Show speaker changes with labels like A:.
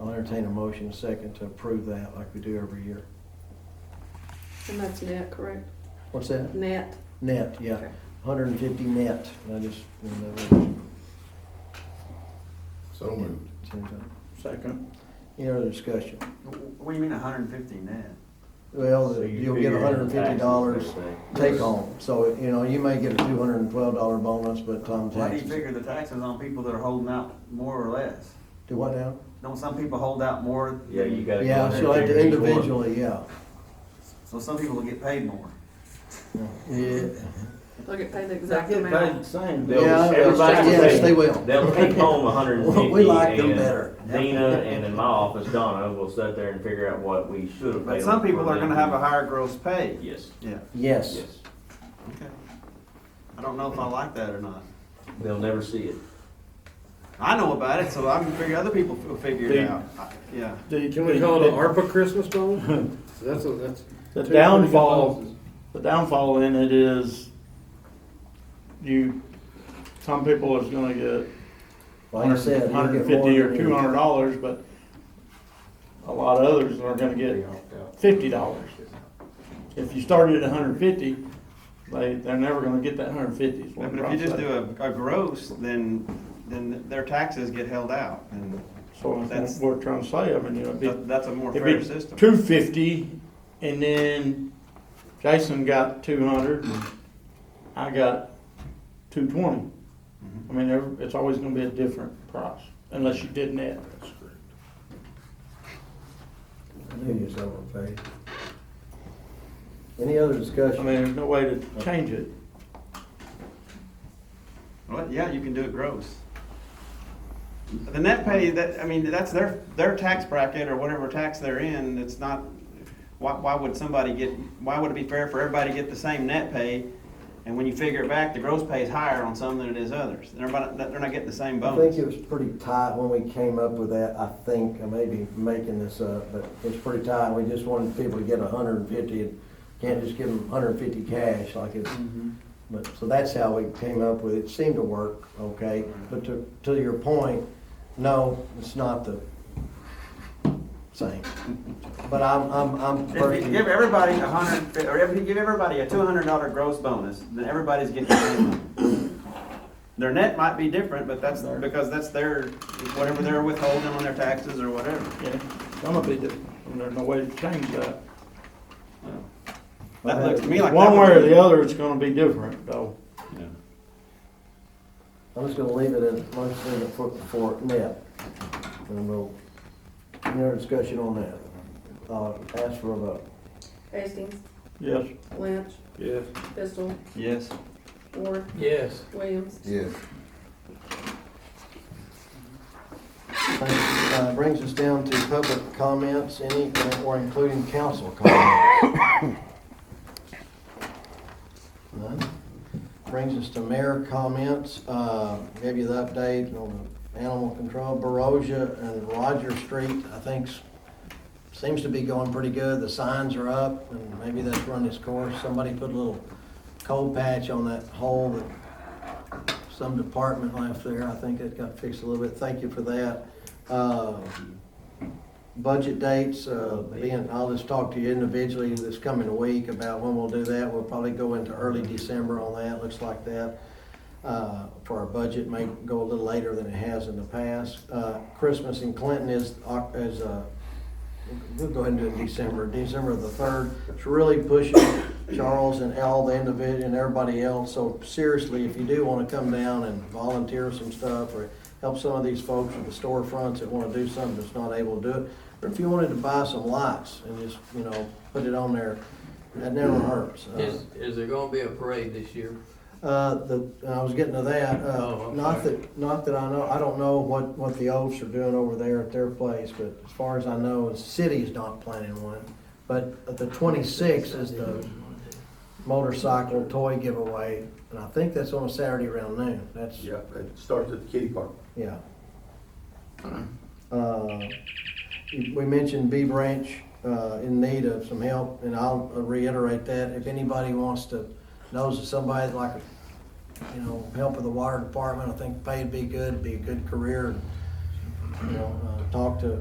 A: I'll entertain a motion and second to approve that like we do every year.
B: And that's net, correct?
A: What's that?
B: Net.
A: Net, yeah,
B: Okay.
A: hundred and fifty net, I just, you
C: So moved.
A: know,
D: Second.
A: any other discussion?
E: What do you mean hundred and fifty net?
A: Well,
D: So you
A: Oh, you'll get
D: figure in
A: hundred and fifty dollars
D: taxes, they say.
A: take home, so, you know, you may get a two hundred and twelve dollar bonus, but Tom
E: Why do you
A: taxes.
E: figure the taxes on people that are holding out more or less?
A: Do what now?
E: Don't some people hold out more? than-
D: Yeah, you gotta.
A: Yeah,
D: go in
A: so
D: there and
A: like
D: figure each one.
A: individually, yeah.
E: So some people will get paid more.
A: Yeah,
B: They'll get paid the
D: They
B: exact
D: get paid the
B: amount.
D: same.
A: Yeah,
D: They'll- everybody
A: yes,
D: will take-
A: they will.
D: They'll take home hundred and fifty.
A: We like them better.
D: Dina and in my office, Donna, will sit there and figure out what we should have paid.
E: But some
D: them
E: people
D: for
E: are
D: them.
E: gonna have a higher gross pay.
D: Yes,
E: Yeah,
A: yes,
D: yes.
E: okay. I don't know if I like that or not.
D: They'll never see it.
E: I know about it, so I can figure, other people will figure it out. I- Yeah.
F: Can we call it an ARPA Christmas bonus? That's, a- that's.
G: The
F: two pretty good
G: downfall,
F: bonuses.
G: the downfall in it is you, some people is gonna get
A: like I said. you'll
G: hundred
A: get
G: and
A: more
G: fifty or
A: than you-
G: two hundred dollars, but a lot of others are gonna get fifty dollars. If you started at a hundred and fifty, they, they're never gonna get that hundred and fifty.
E: Yeah, But if you just do a, a gross, then, then their taxes get held out, and
G: So that's
E: that's-
G: what we're trying to say, I mean, you know, it'd be
E: that, that's a more
G: If
E: fair system.
G: Two fifty, and then Jason got two hundred, and I got two twenty.
E: Mm-hmm.
G: I mean, there- it's always gonna be a different price, unless you did net.
A: I knew you was overpaid. Any other
G: I
A: discussion?
G: mean, there's no way to change it.
E: Well, yeah, you can do it gross. The net pay, that, I mean, that's their, their tax bracket or whatever tax they're in, it's not, why, why would somebody get, why would it be fair for everybody to get the same net pay? And when you figure it back, the gross pay is higher on some than it is others, and everybody, they're not getting the same
A: I think
E: bonus.
A: it was pretty tight when we came up with that, I think, I may be making this up, but it's pretty tight, we just wanted people to get a hundred and fifty, and can't just give them hundred and fifty cash like it's,
E: Mm-hmm.
A: but, so that's how we came up with it, It seemed to work, okay? But to, to your point, no, it's not the same, but I'm, I'm, I'm
E: If you
A: personally,
E: give everybody a hundred, or if you give everybody a two hundred dollar gross bonus, then everybody's getting the same. amount. Their net might be different, but that's, because that's their, whatever they're withholding on their taxes or whatever.
G: Yeah, some of it, and there's no way to change that.
E: That looks to me like. that
G: One way or
E: would be-
G: the other, it's gonna be different, though.
A: I'm just gonna leave it at, let's leave it for, for net, and we'll, any other discussion on that? Uh, ask for a vote.
B: Hastings,
G: Yes,
B: Lynch,
F: Yes.
B: Pistol,
E: Yes.
B: Ward,
F: Yes.
B: Williams.
C: Yes.
A: Uh, Brings us down to public comments, any, or including council comments. None. Brings us to mayor comments, Uh, give you the update on the animal control, Barosia and Roger Street, I think, s- seems to be going pretty good, the signs are up, and maybe that's run its course, somebody put a little cold patch on that hole that some department left there, I think it got fixed a little bit, thank you for that. Uh, Budget dates, uh, being, I'll just talk to you individually this coming week about when we'll do that, we'll probably go into early December on that, looks like that. Uh, For our budget, may go a little later than it has in the past. Uh, Christmas in Clinton is, Oc- is, uh, we'll go ahead and do it in December, December the third. It's really pushing Charles and Al, the individual, and everybody else, so seriously, if you do wanna come down and volunteer some stuff, or help some of these folks with the storefronts that wanna do something that's not able to do it, or if you wanted to buy some lights and just, you know, put it on there, that never hurts. Uh,
H: Is, is there gonna be a parade this year?
A: uh, the, and I was getting to that,
H: Oh,
A: uh,
H: I'm
A: not
H: sorry.
A: that, not that I know, I don't know what, what the Oaks are doing over there at their place, but as far as I know, the city's not planning one. But the twenty-sixth is the motorcycle toy giveaway, and I think that's on a Saturday around noon, that's,
C: Yeah, it starts at the kitty park.
A: yeah. Uh, We mentioned B Branch uh, in need of some help, and I'll uh, reiterate that. If anybody wants to, knows of somebody that like, you know, help with the water department, I think pay'd be good, be a good career. You know, uh, talk to